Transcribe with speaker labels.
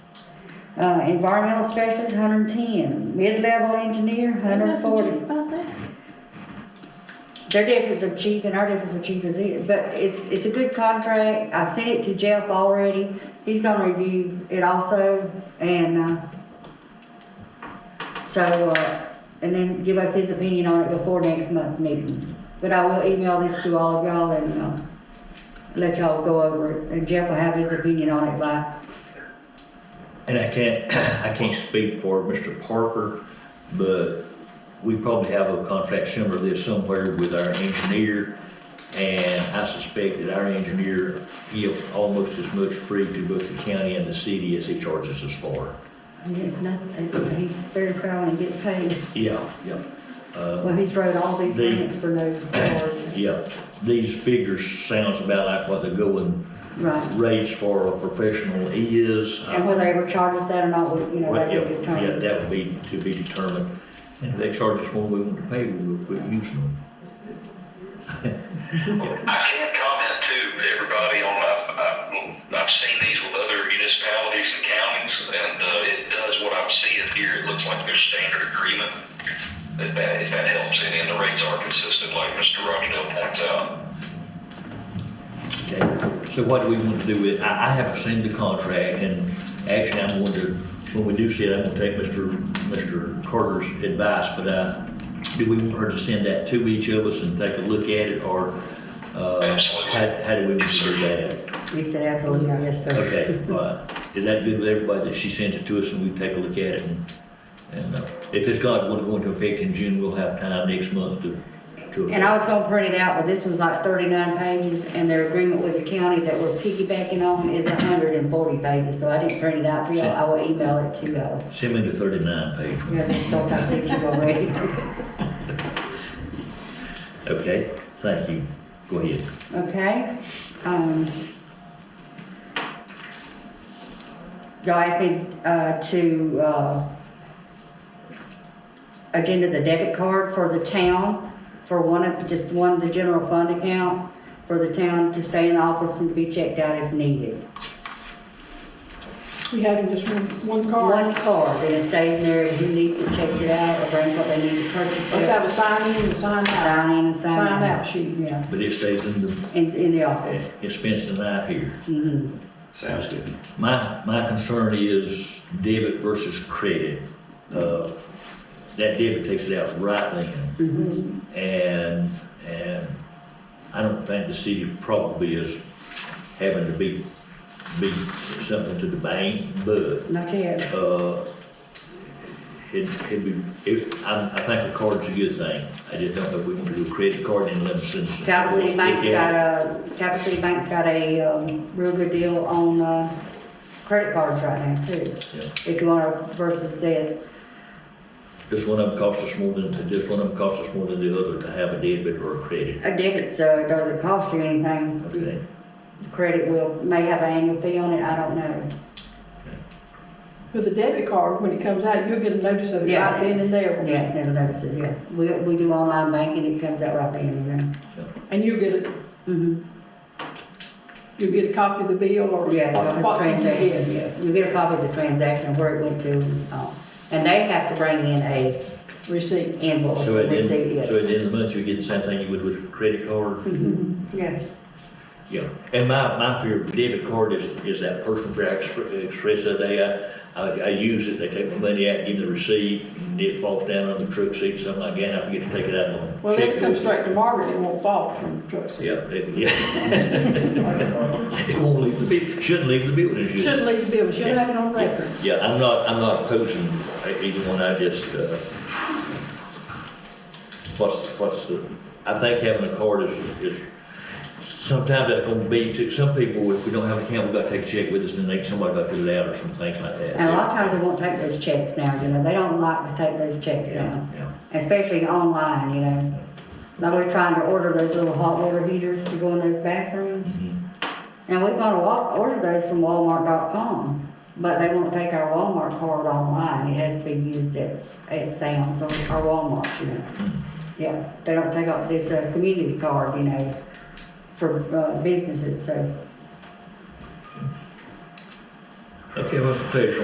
Speaker 1: Uh, environmental specialist, hundred and ten, mid-level engineer, hundred and forty. Their difference of chief and our difference of chief is it, but it's, it's a good contract, I've sent it to Jeff already, he's gonna review it also, and, uh, so, uh, and then give us his opinion on it before next month's meeting. But I will email this to all of y'all and, uh, let y'all go over it, and Jeff will have his opinion on it by,
Speaker 2: And I can't, I can't speak for Mr. Parker, but we probably have a contract similar to this somewhere with our engineer. And I suspect that our engineer gives almost as much free to both the county and the city as he charges us for.
Speaker 1: it's not, he's very proud when he gets paid.
Speaker 2: Yeah, yeah.
Speaker 1: Well, he's wrote all these
Speaker 2: The-
Speaker 1: grants for no charge.
Speaker 2: Yeah, these figures sounds about like what the going
Speaker 1: Right.
Speaker 2: rates for a professional is.
Speaker 1: And whether they ever charges that or not, we- you know,
Speaker 2: Well,
Speaker 1: that's a
Speaker 2: yeah,
Speaker 1: good
Speaker 2: yeah,
Speaker 1: term.
Speaker 2: that would be to be determined. And if they charge us more, we want to pay, we'll quit using them.
Speaker 3: I can comment too, everybody, on, I've, I've, I've seen these with other municipalities and counties, and, uh, it does what I'm seeing here, it looks like there's standard agreement. If that, if that helps, any, and the rates are consistent, like Mr. Rochdale points out.
Speaker 2: Okay, so what do we want to do with, I, I haven't seen the contract, and actually, I'm going to, when we do see it, I'm gonna take Mr. Mr. Carter's advice, but, uh, do we want her to send that to each of us and take a look at it, or, uh,
Speaker 3: Absolutely.
Speaker 2: how, how do we want to do that?
Speaker 1: We said absolutely, yes, sir.
Speaker 2: Okay, all right, is that good with everybody, that she sends it to us and we take a look at it, and, and, uh, if it's got, going to go into effect in June, we'll have time next month to, to.
Speaker 1: And I was gonna print it out, but this was like thirty-nine pages, and their agreement with the county that we're piggybacking on is hundred and forty pages, so I didn't print it out for y'all, I will email it to y'all.
Speaker 2: Send me the thirty-nine page one.
Speaker 1: We have been sold our signature already.
Speaker 2: Okay, thank you. Go ahead.
Speaker 1: Okay, um. Y'all asked me, uh, to, uh, agenda the debit card for the town, for one of, just one of the general fund account, for the town to stay in office and to be checked out if needed.
Speaker 4: We having just one,
Speaker 1: One
Speaker 4: one card.
Speaker 1: card, then it stays in there, if you need to check it out, or brings what they need to purchase.
Speaker 4: Let's have a sign in and sign out.
Speaker 1: Sign in and sign out.
Speaker 4: Sign out sheet.
Speaker 1: Yeah,
Speaker 2: But it stays in the, eh,
Speaker 1: it's in the office.
Speaker 2: it's spends the night here.
Speaker 1: Mhm.
Speaker 2: Mm-hmm. Sounds good. My, my concern is debit versus credit. Uh, That debit takes it out right then. And, and I don't think the city probably is having to be, be something to the bank, but
Speaker 1: Not yet.
Speaker 2: uh, it, it'd be, it, I, I think a card's a good thing. I just don't know if we want to do a credit card in Livingston.
Speaker 1: Capital City Bank's got a, Capital City Bank's got a, um, real good deal on, uh, credit cards right now too.
Speaker 2: Yeah.
Speaker 1: If you wanna versus this,
Speaker 2: This one of them costs us more than, this one of them costs us more than the other to have a debit or a credit,
Speaker 1: a debit, so it doesn't cost you anything.
Speaker 2: okay?
Speaker 1: Credit will, may have an annual fee on it, I don't know.
Speaker 4: With the debit card, when it comes out, you'll get a notice of it
Speaker 1: Yeah.
Speaker 4: right then and there.
Speaker 1: Yeah, never noticed it, yeah. We, we do online banking, it comes out right then and there.
Speaker 4: And you'll get a,
Speaker 1: Mhm.
Speaker 4: you'll get a copy of the bill or.
Speaker 1: Yeah, they'll have the
Speaker 4: what you
Speaker 1: transaction,
Speaker 4: did.
Speaker 1: yeah. You get a copy of the transaction, where it went to, um, and they have to bring in a
Speaker 4: Receipt.
Speaker 1: invoice,
Speaker 2: So at the
Speaker 1: receipt,
Speaker 2: end,
Speaker 1: yes.
Speaker 2: so at the end of the month, you get the same thing you would with a credit card?
Speaker 4: Mm-hmm.
Speaker 1: Yeah.
Speaker 2: Yeah, and my, my fear of debit card is, is that personal fear I expre- expressed the other day. uh, I, I, I use it, they take my money out, give me the receipt, and it falls down on the truck seat, something like that, and I forget to take it out on.
Speaker 4: Well, then it comes
Speaker 2: checkbook.
Speaker 4: straight to Margaret, it won't fall from the truck seat.
Speaker 2: Yeah, it, yeah. It won't leave the, bu- shouldn't leave the building, should it?
Speaker 4: Shouldn't leave the bill, should have it on record.
Speaker 2: Yeah, I'm not, I'm not opposing either one, I just, uh, what's, what's the, I think having a card is, is, sometimes that's gonna be, to some people, if we don't have a account, we gotta take a check with us, and then somebody gotta fill it out or some things like that.
Speaker 1: And a lot of times they won't take those checks now, you know, they don't like to take those checks
Speaker 2: Yeah,
Speaker 1: now,
Speaker 2: yeah.
Speaker 1: especially online, you know. Like we're trying to order those little hot water heaters to go in those bathrooms,
Speaker 2: Mhm.
Speaker 1: and we're gonna wa- order those from Walmart.com, but they won't take our Walmart card online, it has to be used at, S- at Sam's or or Walmart, you know.
Speaker 2: mm-hmm.
Speaker 1: Yeah, they don't take out this, uh, community card, you know, for, uh, businesses, so.
Speaker 2: Okay, what's the pleasure